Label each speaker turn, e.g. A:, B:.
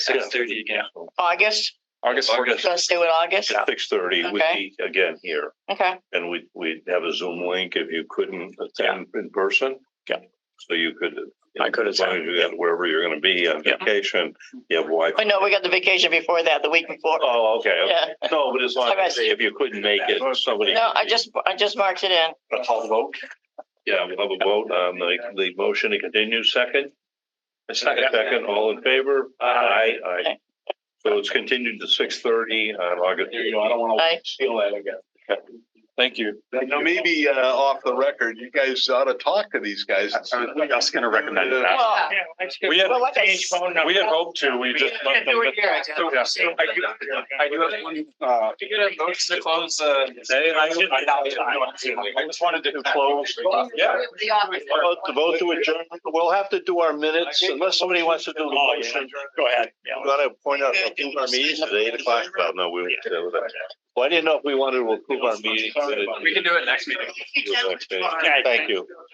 A: Six thirty again.
B: August,
A: August.
C: August fourteenth,
B: let's do it August,
D: Six thirty, we'd
B: Okay.
D: be again here
B: okay,
D: and we'd, we'd have a Zoom link if you couldn't attend in person.
C: Yeah.
D: So you could.
C: I could
D: As long as
C: attend,
D: you got wherever you're gonna be on
C: Yeah.
D: vacation, you have Wi-Fi.
B: oh no, we got the vacation before that, the week before,
D: Oh, okay. okay.
B: yeah,
D: No, but as long as
B: Okay.
D: if you couldn't make it, somebody.
B: no, I just, I just marked it in,
A: A call vote.
D: Yeah, we'll have a vote on the, the motion to continue second.
A: A
D: Second, all in favor?
A: Aye.
D: Aye. aye. So it's continued to six thirty on August.
A: There you go. I don't want
B: Aye.
A: to steal that again.
C: Thank you.
E: Now, maybe uh off the record, you guys ought to talk to these guys.
C: was gonna recommend
E: that.
B: well,
C: We had,
B: well, like I. s-
C: we had hoped to, we just.
B: Can't do it here.
C: I do have one, uh. To get a motion to close, uh. Today, I, I just wanted to close. Yeah.
D: Vote to vote to adjourn. We'll have to do our minutes unless somebody wants to do the motion.
C: Go ahead.
D: I'm gonna point out, we'll approve Oh, our meetings at eight o'clock. Well, no, we, well, I didn't know if we wanted to approve our meetings.
A: We can
D: do it next
B: meeting.
D: Thank you.